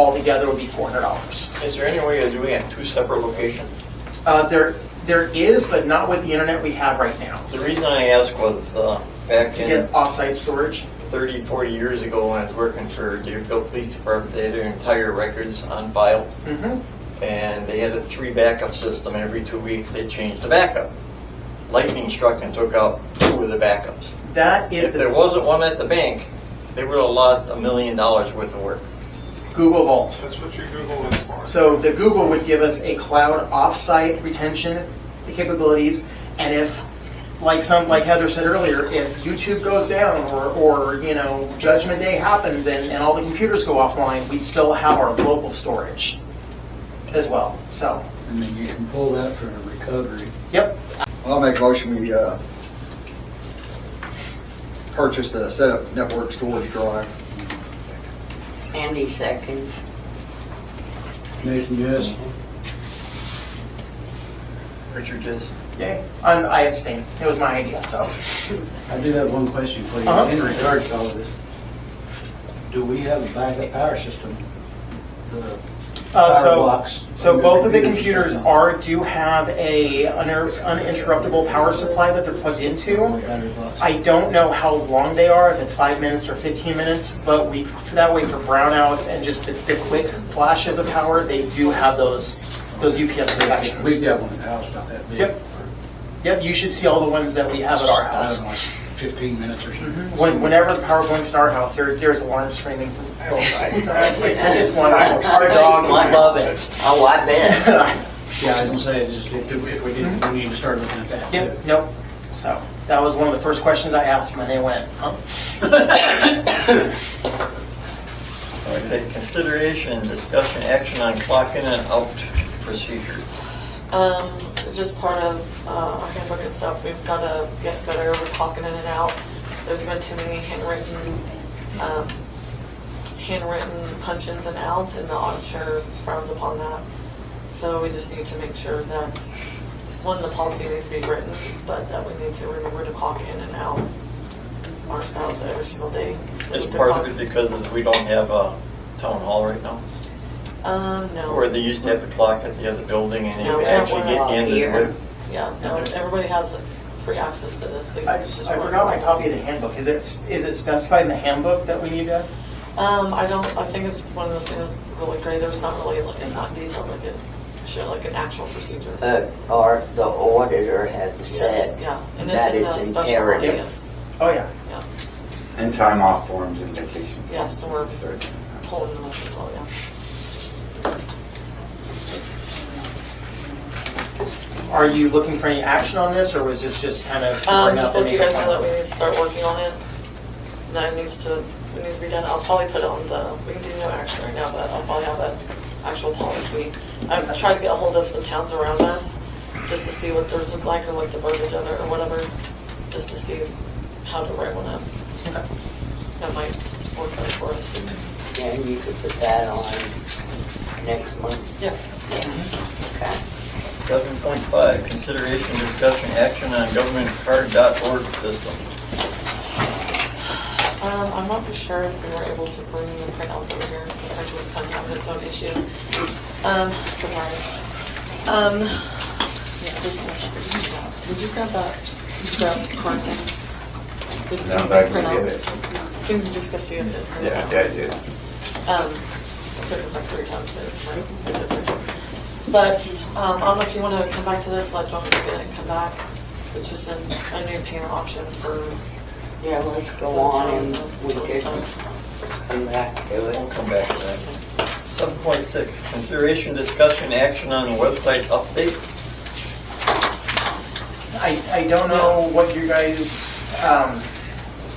altogether would be $400. Is there any way of doing it two separate locations? Uh, There, there is, but not with the internet we have right now. The reason I asked was uh, back To in get offsite storage, 30, 40 years ago when I was working for Deerfield Police Department, they had their entire records on file. Mhm. And they had a three backup system. Every two weeks, they changed the backup. Lightning struck and took out two of the backups. that is If there the wasn't one at the bank, they would have lost a million dollars worth of work. Google Vault. That's what your Google is for. So the Google would give us a cloud offsite retention capabilities, and if, like some, like Heather said earlier, if YouTube goes down or, or, you know, Judgment Day happens and, and all the computers go offline, we still have our local storage as well, so, And then you can pull that for a recovery. yep. I'll make a motion, we, uh, purchase the setup network storage drive. Sandy seconds. Nathan, yes? Richard just Yay. I'm- I abstain. It was my idea, so. I do have one question for you Uh-huh. in regards to all of this. Do we have a backup power system? The Uh, power so- blocks So under both of the computer computers system? are, do have a uninter- uninterruptible power supply that they're plugged into. Battery blocks. I don't know how long they are, if it's five minutes or 15 minutes, but we, that way for brownouts and just the, the quick flashes of power, they do have those, those UPS We've protections. got one in the house about that big. Yep. Yep, you should see all the ones that we have at our I house. don't know, like fifteen minutes or something. When, whenever the power blinks in our house, there, there's alarms screaming from both sides. So It's, it's wonderful. Our dogs love it. Oh, I bet. Mm-hmm. Yeah, I was gonna say, it's just, if, if we did, we need to start looking at that. too. Yep, nope. So that was one of the first questions I asked him and they went, huh? uh, Okay, consideration, discussion, action on clock in and out procedure. Um, it's just part of, uh, our handbook and stuff, we've gotta get better with clocking in and out. There's been too many handwritten, um, handwritten punch-ins and outs, and the auditor frowns upon that. So we just need to make sure that, one, the policy needs to be written, but that we need to remember to clock in and out ourselves every single day. It's part of it because we don't have a town hall right now, Um, no. where they used to have the clock at the other building and you No, could we have actually one get out in and here. do it. Yeah, no, everybody has free access to this. They I, can just I work. forgot my copy of the handbook. Is it, is it specified in the handbook that we need to? Um, I don't, I think it's one of those things that's really great, there's not really, like it's not detailed like it should, like an actual procedure. The, or the auditor had Yes, said Yeah, and that it's it's in the special one, imperative. yes, Oh, yeah. yeah, And time off forms and vacation. yes, so we're Third. pulling them up as well, yeah. Are you looking for any action on this or was this just kind of? to Um, bring just up and let you make a guys know that comment? we need to start working on it, and that it needs to, it needs to be done, I'll probably put it on the, we can do no action right now, but I'll probably have that actual policy. I've tried to get a hold of some towns around us, just to see what theirs look like, or like the verbiage of it, or whatever, just to see how to write one up. Okay. that might work out for us. and you could put that on next month. Yeah. Okay. Seven point five, consideration, discussion, action on governmentcard.org system. Um, I'm not for sure if we were able to bring the printouts over here, the fact was kind of having its own issue. Um, surprise. Um, yeah, this is, would you grab that, grab card thing? Did Now you back to print get out? it. Can you discuss the other? Yeah, I did. Um, it took us like three times to, like, put it there. But, um, I don't know if you wanna come back to this, let John get it and come back. It's just a, a new payment option for. Yeah, let's go for the on town. and we could So- come back to We'll it. come back to that. Seven point six, consideration, discussion, action on website update. I, I don't know what you guys, um,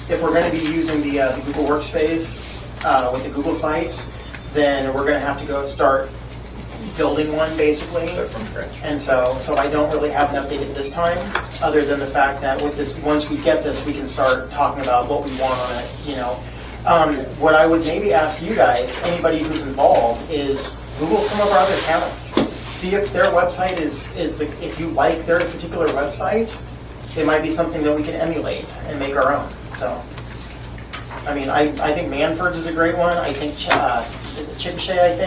if we're gonna be using the, uh, the Google Workspace, uh, with the Google Sites, then we're gonna have to go start building one basically. Start from scratch. And so, so I don't really have an update at this time, other than the fact that with this, once we get this, we can start talking about what we want on it, you know. Um, What I would maybe ask you guys, anybody who's involved, is Google some of our other towns. See if their website is, is the, if you like their particular website, it might be something that we can emulate and make our own, so. I mean, I, I think Manford's is a great one, I think Ch- uh, Chickasha, I think.